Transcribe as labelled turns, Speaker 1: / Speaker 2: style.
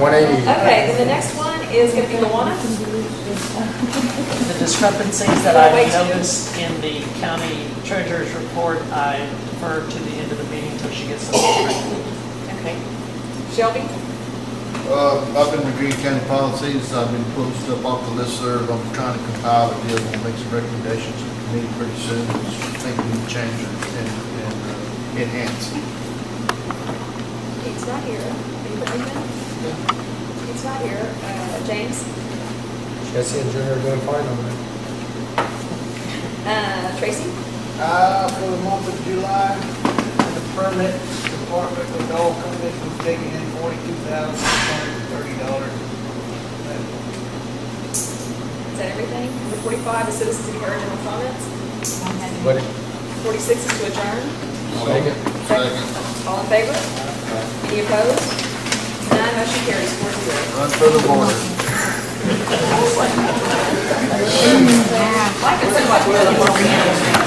Speaker 1: 180.
Speaker 2: Okay, then the next one is going to be Luana.
Speaker 3: The discrepancies that I've noticed in the county treasurer's report, I defer to the end of the meeting until she gets them. corrected.
Speaker 2: Okay. Shelby?
Speaker 4: Uh, I've been reviewing county policies, I've been pulling stuff off the listserv, I'm trying to compile it, deal, and make some recommendations to the committee pretty soon, think we can change and, and uh, enhance.
Speaker 2: Pete's not here. Are you putting him in? Pete's not here. Uh, James?
Speaker 1: Jesse and Junior are doing fine on that.
Speaker 2: Uh, Tracy?
Speaker 5: Uh, for the month of July, the permit department, the dog permit was taking in forty-two thousand, six hundred and thirty dollars.
Speaker 2: Is that everything? Number 45 is citizens and original comments.
Speaker 1: But
Speaker 2: 46 is to adjourn.
Speaker 1: Second.
Speaker 4: Second.
Speaker 2: All in favor? Any opposed? None, motion carries four zero.
Speaker 4: Run for the border.
Speaker 2: I can send my...